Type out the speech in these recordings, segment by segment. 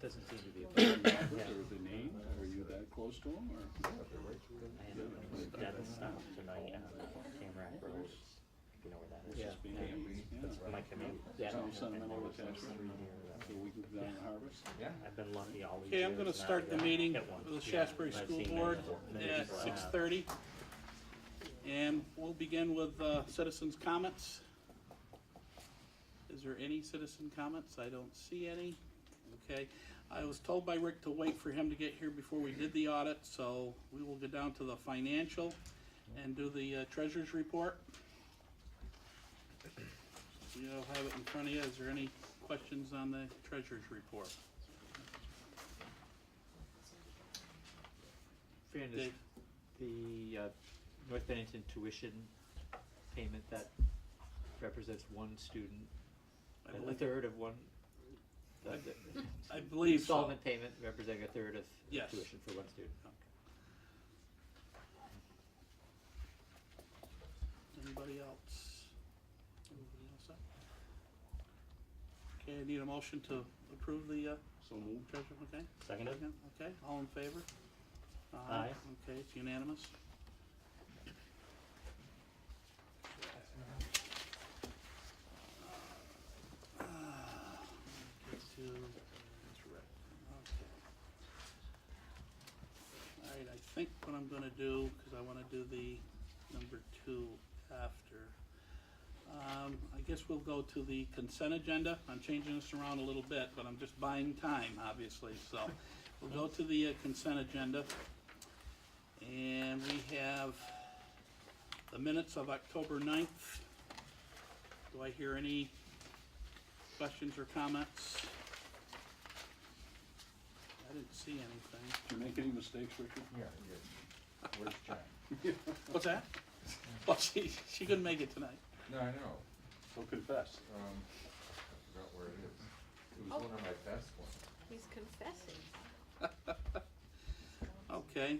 Doesn't seem to be. Or a problem. were they named, were you that close to them, or? I had a dead stop tonight on Camera Road, you know where that is? Yeah. Just being named, yeah. My commute. Yeah. And Some there sentimental was no attachment, CD or so nothing. we can go down and harvest. I've been lucky all these Okay, years. I'm gonna not start the get- meeting get one. of the Yeah, Shasbury I've School seen Board that. at Yeah. six thirty. And we'll begin with, uh, citizens' comments. Is there any citizen comments? I don't see any. Okay, I was told by Rick to wait for him to get here before we did the audit, so we will go down to the financial and do the uh, treasurer's report. You don't have it in front of you. Is there any questions on the treasurer's report? Fernandez, Dave? the uh, North Bennington tuition payment that represents one student, I a- a believe, third of one. the- I- the- I believe so. Installment payment representing a third of Yes. tuition for one student. Anybody else? Anybody else up? Okay, I need a motion to approve the uh, So moved. treasure, okay? Seconded? Second, Okay, all in favor? Aye. Okay, it's unanimous. Uh, get to- okay. All right, I think what I'm gonna do, because I wanna do the number two after. Um, I guess we'll go to the consent agenda. I'm changing this around a little bit, but I'm just buying time, obviously, so. We'll go to the uh, consent agenda. And we have the minutes of October 9th. Do I hear any questions or comments? I didn't see anything. Did you make any mistakes, Richard? Yeah, yeah. Where's Jen? What's that? Well, she, she couldn't make it tonight. No, I know, So confess. um, I forgot where it is. It was Oh. one of my best ones. He's confessing. Okay,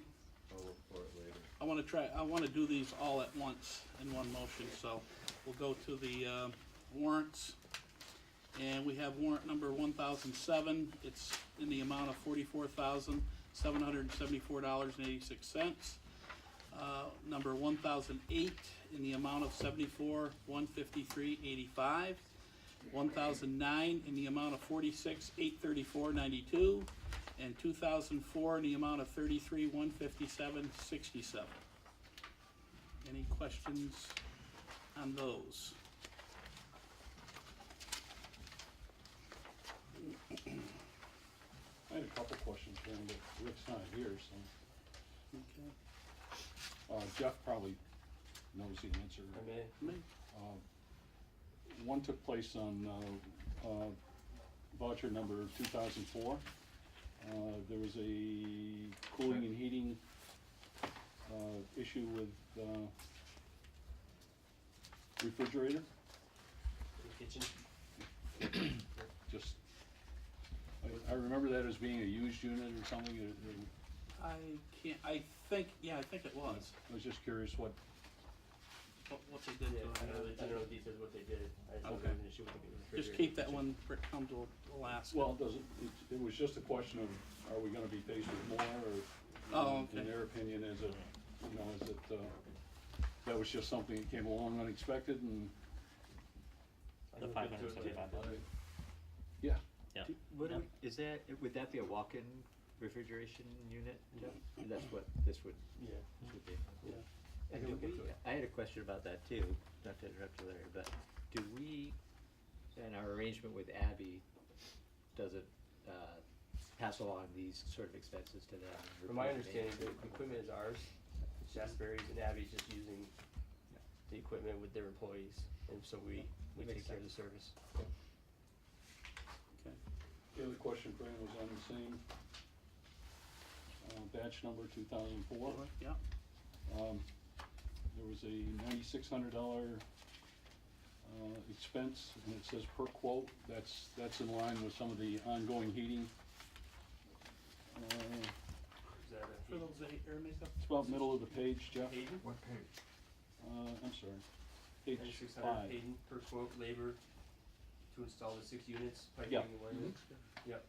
I'll look for it later. I want to try, I want to do these all at once in one motion, so we'll go to the uh, warrants. And we have warrant number one thousand seven, it's in the amount of forty-four thousand, seven hundred and seventy-four dollars and eighty-six cents. Uh, Number one thousand eight, in the amount of seventy-four, one fifty-three, eighty-five. One thousand nine, in the amount of forty-six, eight thirty-four, ninety-two and two thousand four in the amount of thirty-three, one fifty-seven, sixty-seven. Any questions on those? I had a couple questions for him, but Rick's not here, so, Okay, uh, Jeff probably knows the answer. me, Uh, One took place on, uh, uh, voucher number two thousand four. Uh, there was a cooling and heating, uh, issue with, uh, refrigerator, Kitchen, just, I, I remember that as being a used unit or something, it, it- I can't, I think, yeah, I think it was, I was just curious what, what, what they yeah, did I don't know, I to don't it. know the details of what they did, I just know Okay. there was an issue with the refrigerator. Just keep that one for it come to Alaska. well, does it, it, it was just a question of, are we gonna be faced with more, or? Oh, in- In okay. their opinion, is it, you know, is it, uh, that was just something that came along unexpected and, The five hundred and seventy-five dollars. yeah. Yeah. What do Yeah. we- is that, would that be a walk-in refrigeration unit, Jeff? That's what this would, Yeah. this would be. Yeah. And I can do look into we- it. I had a question about that too, not to interrupt you, Larry, but do we, in our arrangement with Abby, does it, uh, pass along these sort of expenses to them? or From my do they- understanding, the equipment is ours, Shasberry's and Abby's just using the equipment with their employees, and so we, we Makes take care of the service. Okay. The other question, Fran, was on the same, uh, batch number two thousand four. Yeah, Um, there was a ninety-six hundred dollar, uh, expense, and it says per quote, that's, that's in line with some of the ongoing heating. Uh, Is that a- for those eight air makeup, It's about middle of the page, Jeff. Hayden? What page? Uh, I'm sorry. Page Ninety-six hundred five. Hayden per quote, labor to install the six units, Yeah. piping and wiring. Yep,